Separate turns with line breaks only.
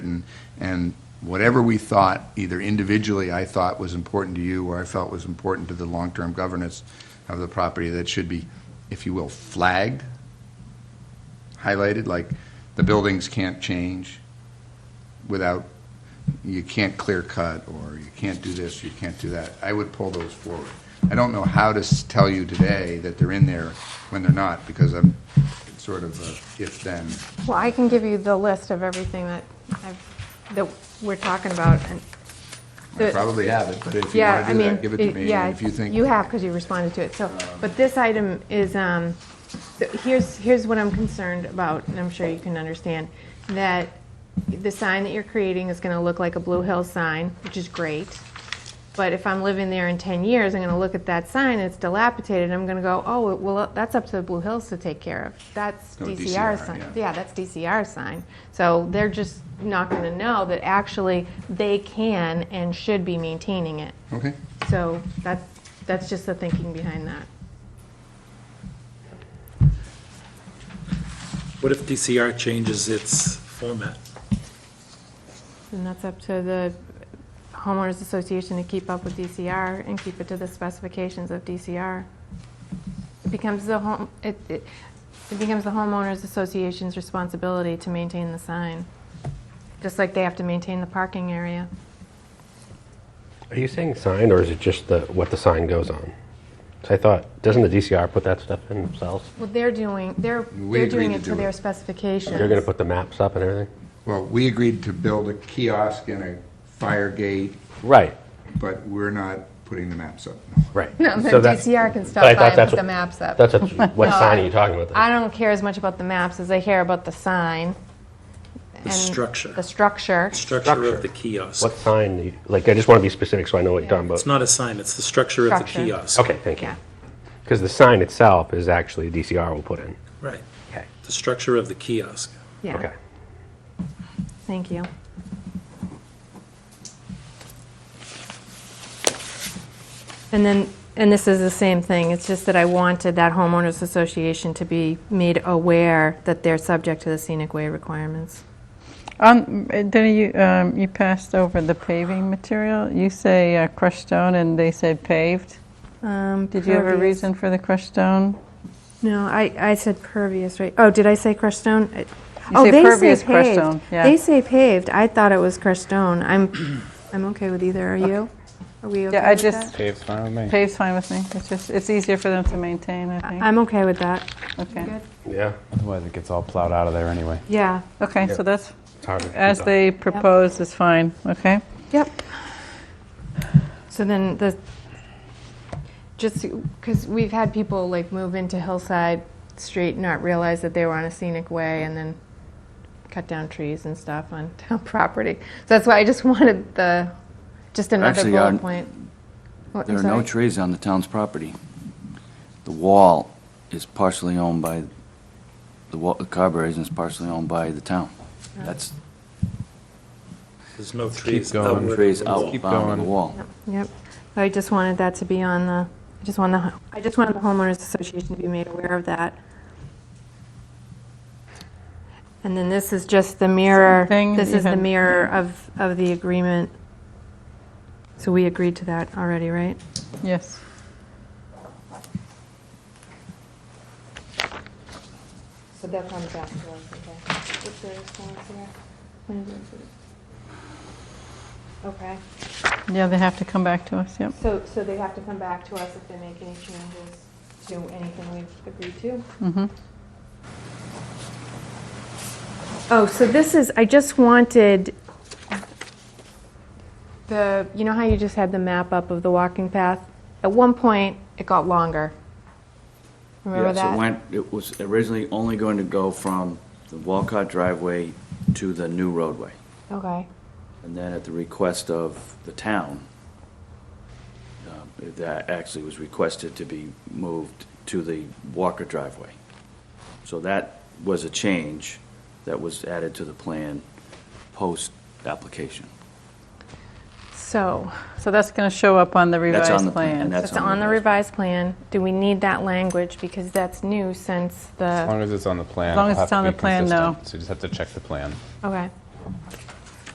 and, and whatever we thought, either individually I thought was important to you, or I felt was important to the long-term governance of the property, that should be, if you will, flagged, highlighted, like, the buildings can't change without, you can't clear cut, or you can't do this, you can't do that. I would pull those forward. I don't know how to s- tell you today that they're in there when they're not, because I'm sort of a if-then.
Well, I can give you the list of everything that I've, that we're talking about, and.
I
the-
probably have it, but if you
Yeah,
want
I
to do
mean.
that, give it to
it-
me.
yeah,
And if you think,
You have, because you responded to it, so, but this item is, um, so here's, here's what I'm concerned about, and I'm sure you can understand, that the sign that you're creating is gonna look like a Blue Hill sign, which is great, but if I'm living there in ten years, I'm gonna look at that sign, it's dilapidated, and I'm gonna go, oh, well, that's up to the Blue Hills to take care of, that's
No, DCR,
DCR sign.
yeah.
Yeah, that's DCR sign. So they're just not gonna know that actually they can and should be maintaining it.
okay,
So that, that's just the thinking behind that.
What if DCR changes its format?
And that's up to the homeowners association to keep up with DCR and keep it to the specifications of DCR. It becomes the home, it, it it becomes the homeowners association's responsibility to maintain the sign, just like they have to maintain the parking area.
Are you saying sign, or is it just the, what the sign goes on? 'Cause I thought, doesn't the DCR put that stuff in themselves?
Well, they're doing, they're,
We
they're doing
agreed to
it to
do
their
it.
specifications.
They're gonna put the maps up and everything?
well, we agreed to build a kiosk and a fire gate,
Right,
but we're not putting the maps up.
right.
No,
So
the
that-
DCR can
but I
stop by
thought
and
that's
put the
what-
maps up.
That's what, you- what sign are you talking about?
I
then?
don't care as much about the maps as I care about the sign. and
structure.
The structure.
Structure
Structure.
of the kiosk.
What sign, do you- like, I just wanna be specific so I know what you're talking
It's
about.
not a sign, it's the structure of the
Structure.
kiosk.
Okay, thank you.
Yeah.
Because the sign itself is actually DCR will put in.
Right,
Okay.
the structure of the kiosk.
Yeah,
Okay.
thank you. And then, and this is the same thing, it's just that I wanted that homeowners association to be made aware that they're subject to the scenic way requirements.
On, did you, um, you passed over the paving material? You say uh, crushed stone and they said paved. Did you have a reason for the crushed stone?
Um, No, I, I said pervious, right? Oh, did I say crushed stone? I-
You
oh,
say
they
pervious
say
crushed
paved.
stone, yeah.
They say paved. I thought it was crushed stone. I'm, I'm okay with either. Are you? Are we okay
Yeah, I
with
just,
that?
Pave's fine with me.
paved's fine with me. It's just, it's easier for them to maintain, I think.
I'm okay with that.
Okay,
Uh, Good.
Yeah,
Otherwise, it gets all plowed out of there anyway.
Yeah.
okay, so that's,
it's hard to keep
as
up.
they proposed is fine, okay?
Yep. So then the, just, because we've had people like move into Hillside Street, not realize that they were on a scenic way, and then cut down trees and stuff on town property. So that's why I just wanted the, just another
Actually, uh,
bullet point. What,
There
I'm
are no
sorry?
trees on the town's property. The wall is partially owned by, the wa- the Carberry's is partially owned by the town. That's
There's no trees
going.
outward. of
trees
the wall.
outbound of the
going.
wall.
Yep. I just wanted that to be on the, I just wanted, the- I just wanted the homeowners association to be made aware of that. And then this is just the mirror,
Same thing
this
that you
is the
had-
mirror of, of the agreement. So we agreed to that already, right?
Yes.
So that's on the back okay. Okay,
Yeah, they have to come back to us, yep.
so, so they have to come back to us if they make any changes to anything we've agreed to?
Mhm.
Oh, so this is, I just wanted the, you know how you just had the map up of the walking path? At one point, it got longer. Remember
Yeah, so it
that?
went, it was originally only going to go from the Walcott driveway to the new roadway.
Okay,
And then at the request of the town, um, that actually was requested to be moved to the Walker driveway. So that was a change that was added to the plan post-application.
so,
So that's going to show up on the
That's on
revised
the plan, and
plan.
that's
it's on the revised plan. Do we need that language? Because that's new since
As
the,
long as it's on the plan.
As long
it'll
as
have
it's
to
on
be
the plan,
consistent.
though.
So you just have to check the plan.
okay.